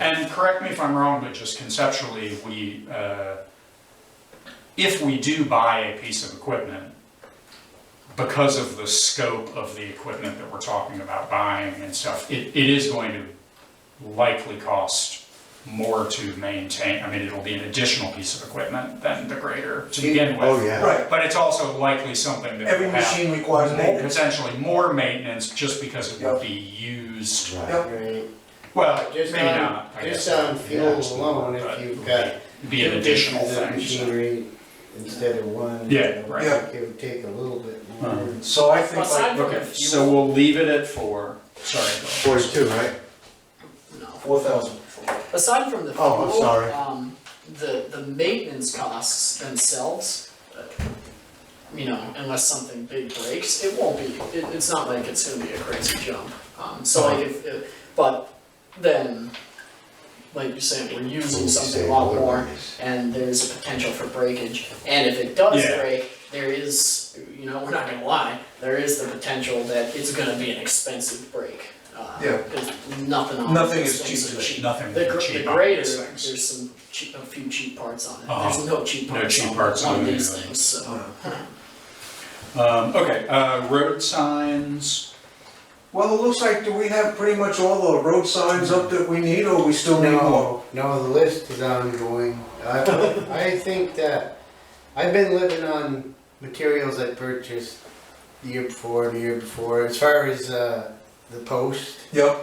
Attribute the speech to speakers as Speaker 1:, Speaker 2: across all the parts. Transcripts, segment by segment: Speaker 1: And correct me if I'm wrong, but just conceptually, we, uh, if we do buy a piece of equipment, because of the scope of the equipment that we're talking about buying and stuff, it, it is going to likely cost more to maintain, I mean, it'll be an additional piece of equipment than the grader to begin with.
Speaker 2: Oh, yeah.
Speaker 3: Right,
Speaker 1: But it's also likely something that
Speaker 3: every
Speaker 1: will have
Speaker 3: machine requires maintenance.
Speaker 1: potentially more maintenance just because it will be used,
Speaker 2: Right.
Speaker 3: Yep.
Speaker 4: Right.
Speaker 1: well, maybe
Speaker 4: Just on,
Speaker 1: not, I guess.
Speaker 4: just on fuel alone,
Speaker 1: But
Speaker 4: if you've got.
Speaker 1: be an
Speaker 4: two
Speaker 1: additional
Speaker 4: pieces of
Speaker 1: thing. so.
Speaker 4: Machinery instead of one.
Speaker 1: Yeah,
Speaker 4: you know,
Speaker 1: right.
Speaker 3: Yeah.
Speaker 4: It would take a little bit more.
Speaker 1: Uh-huh.
Speaker 3: So I think like
Speaker 5: Aside from the
Speaker 1: Okay, so
Speaker 5: fuel,
Speaker 1: we'll leave it at four, sorry. Bill.
Speaker 2: Forty-two, right?
Speaker 3: four thousand.
Speaker 5: aside from the
Speaker 2: Oh, I'm
Speaker 5: fuel,
Speaker 2: sorry.
Speaker 5: um, the, the maintenance costs themselves, uh, you know, unless something big breaks, it won't be, it, it's not like it's gonna be a crazy jump. Um, so like if, if, but then, like you're saying, we're using something a lot more, and there's a potential for breakage. And if it does
Speaker 1: Yeah.
Speaker 5: break, there is, you know, we're not gonna lie, there is the potential that it's gonna be an expensive break. Uh,
Speaker 3: Yeah.
Speaker 5: There's nothing on
Speaker 3: Nothing is
Speaker 5: these things
Speaker 3: cheap
Speaker 5: are
Speaker 3: today.
Speaker 1: Nothing
Speaker 5: The
Speaker 1: will
Speaker 5: gr-
Speaker 1: be
Speaker 5: the
Speaker 1: cheap on
Speaker 5: greater,
Speaker 1: these things.
Speaker 5: there's some cheap, a few cheap parts on it,
Speaker 1: Uh-huh.
Speaker 5: there's no cheap
Speaker 1: No
Speaker 5: parts
Speaker 1: cheap parts
Speaker 5: on, on
Speaker 1: on
Speaker 5: these
Speaker 1: it.
Speaker 5: things, so.
Speaker 1: Um, okay, uh, road signs,
Speaker 3: Well, it looks like, do we have pretty much all the road signs up that we need, or we still need more?
Speaker 4: No, no, the list is ongoing. I, I think that, I've been living on materials I purchased the year before, the year before. As far as, uh, the post,
Speaker 3: Yep,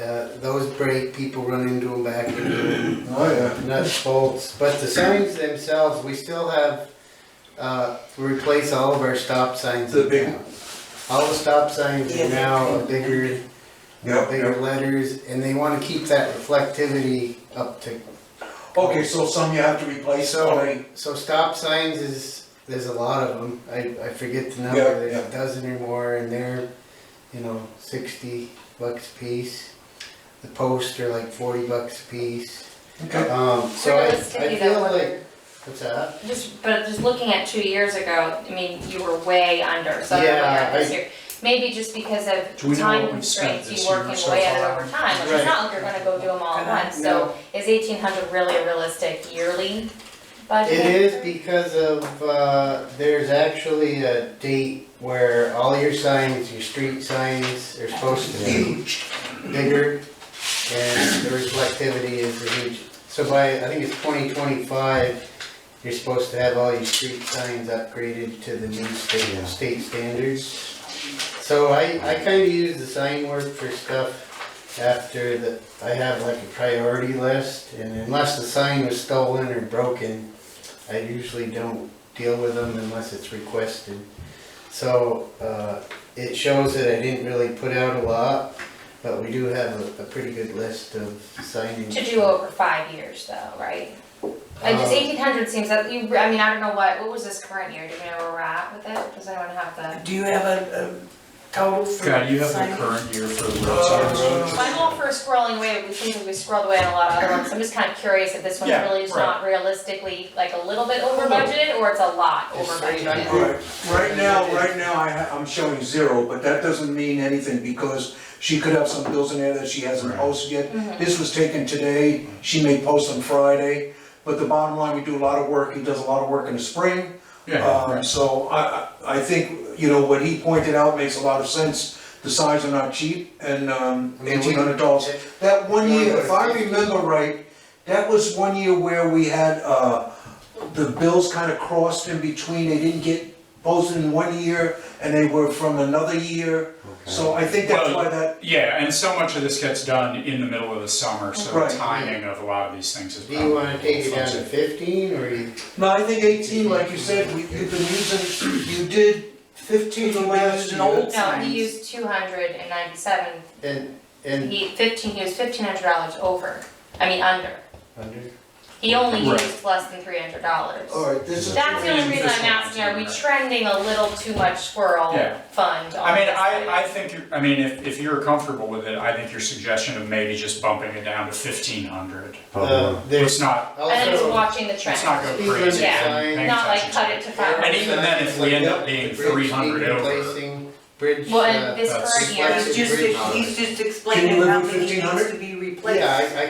Speaker 4: uh, those break, people run into them back into them.
Speaker 3: oh, yeah.
Speaker 4: nuts, bolts, but the signs themselves, we still have, uh, we replace all of our stop signs
Speaker 3: The
Speaker 4: in
Speaker 3: big-
Speaker 4: town. All the stop signs are now bigger,
Speaker 3: Yep,
Speaker 4: bigger letters, and they wanna keep that reflectivity up to.
Speaker 3: Okay, so some you have to replace, so many,
Speaker 4: So stop signs is, there's a lot of them, I, I forget the
Speaker 3: Yeah,
Speaker 4: number, there's
Speaker 3: yeah.
Speaker 4: a dozen or more, and they're, you know, sixty bucks a piece. The posts are like forty bucks a piece,
Speaker 3: okay,
Speaker 4: um, so I, I
Speaker 6: Realistically, though,
Speaker 4: feel
Speaker 6: whether-
Speaker 4: like, what's that?
Speaker 6: Just, but just looking at two years ago, I mean, you were way under, so
Speaker 4: Yeah,
Speaker 6: way under this
Speaker 4: I-
Speaker 6: year. Maybe just because
Speaker 1: Do we
Speaker 6: of
Speaker 1: know
Speaker 6: time
Speaker 1: what we've spent
Speaker 6: constraints,
Speaker 1: this
Speaker 6: you
Speaker 1: year
Speaker 6: working
Speaker 1: so
Speaker 6: way at it
Speaker 1: far?
Speaker 6: over time, which is not like you're gonna go do them all at once, so is eighteen hundred really a realistic yearly budget?
Speaker 4: It is because of, uh, there's actually a date where all your signs, your street signs are supposed to be bigger and the reflectivity is huge. So by, I think it's twenty twenty-five, you're supposed to have all your street signs upgraded to the new
Speaker 2: Yeah.
Speaker 4: state, state standards. So I, I kinda use the sign work for stuff after the, I have like a priority list, and unless the sign was stolen or broken, I usually don't deal with them unless it's requested. So, uh, it shows that I didn't really put out a lot, but we do have a, a pretty good list of signing.
Speaker 6: To do over five years though, right? Like just
Speaker 4: Um,
Speaker 6: eighteen hundred seems that, you, I mean, I don't know what, what was this current year, do we know where we're at with it? Does anyone have the?
Speaker 7: Do you have a, a total for
Speaker 1: God, you have the
Speaker 7: signing?
Speaker 1: current year for road signs.
Speaker 6: I'm
Speaker 4: Uh,
Speaker 6: all for scrolling away, we seem to be scrolled away on a lot of other ones, so I'm just kind of curious if this one's
Speaker 1: Yeah,
Speaker 6: really just
Speaker 1: right.
Speaker 6: not realistically, like a little bit over budgeted, or it's a lot over
Speaker 4: Just
Speaker 6: budgeted?
Speaker 4: like-
Speaker 3: all right. Right now, right now, I, ha- I'm showing zero, but that doesn't mean anything, because she could have some bills in there that she hasn't posted yet.
Speaker 6: Mhm.
Speaker 3: This was taken today, she may post on Friday, but the bottom line, we do a lot of work, he does a lot of work in the spring,
Speaker 1: Yeah,
Speaker 3: Um,
Speaker 1: right.
Speaker 3: so I, I I think, you know, what he pointed out makes a lot of sense. The signs are not cheap and, um,
Speaker 4: I mean, we-
Speaker 3: eighteen hundred dollars. That one year, if I
Speaker 4: Yeah.
Speaker 3: remember right, that was one year where we had, uh, the bills kind of crossed in between. They didn't get posted in one year and they were from another year. So I think that's why that,
Speaker 1: yeah, and so much of this gets done in the middle of the summer, so
Speaker 3: Right.
Speaker 1: the timing of a lot of these things is
Speaker 4: Do
Speaker 1: probably.
Speaker 4: you wanna take it down to
Speaker 1: fuzzy.
Speaker 4: fifteen, or you?
Speaker 3: no, I think eighteen, like you said, we, you've been using, you did fifteen
Speaker 7: Even
Speaker 3: last
Speaker 7: using
Speaker 3: year.
Speaker 7: an old
Speaker 6: No,
Speaker 7: signs.
Speaker 6: he used two hundred and ninety-seven,
Speaker 4: And, and
Speaker 6: he fifteen, he was fifteen hundred dollars over, I mean, under.
Speaker 4: under?
Speaker 6: He only
Speaker 1: Right.
Speaker 6: used less than three hundred dollars.
Speaker 3: All right, this is.
Speaker 6: That's the only reason I'm asking, are we trending a little too much squirrel
Speaker 1: Yeah.
Speaker 6: fund on
Speaker 1: I mean,
Speaker 6: this item?
Speaker 1: I, I think, you're- I mean, if, if you're comfortable with it, I think your suggestion of maybe just bumping it down to fifteen hundred.
Speaker 2: Probably.
Speaker 4: Uh,
Speaker 1: It's
Speaker 4: There's
Speaker 1: not,
Speaker 6: And then just
Speaker 4: also,
Speaker 6: watching the trend.
Speaker 1: it's not go
Speaker 4: Speed
Speaker 1: crazy.
Speaker 4: limit
Speaker 1: and
Speaker 4: sign.
Speaker 1: paying
Speaker 6: Not like
Speaker 1: attention to
Speaker 6: cut it to five
Speaker 1: And even then, if we end up
Speaker 4: Yep,
Speaker 1: being
Speaker 4: the bridge
Speaker 1: three hundred
Speaker 4: needed
Speaker 1: over,
Speaker 4: replacing, Bridge,
Speaker 6: Well,
Speaker 4: uh,
Speaker 6: and this
Speaker 1: that's-
Speaker 6: current year,
Speaker 4: That's
Speaker 7: He's just, he's just
Speaker 3: Can you
Speaker 7: explaining
Speaker 3: live
Speaker 7: how
Speaker 3: with
Speaker 7: many needs
Speaker 3: 1500?
Speaker 7: to be replaced.
Speaker 5: Like-
Speaker 4: yeah, I, I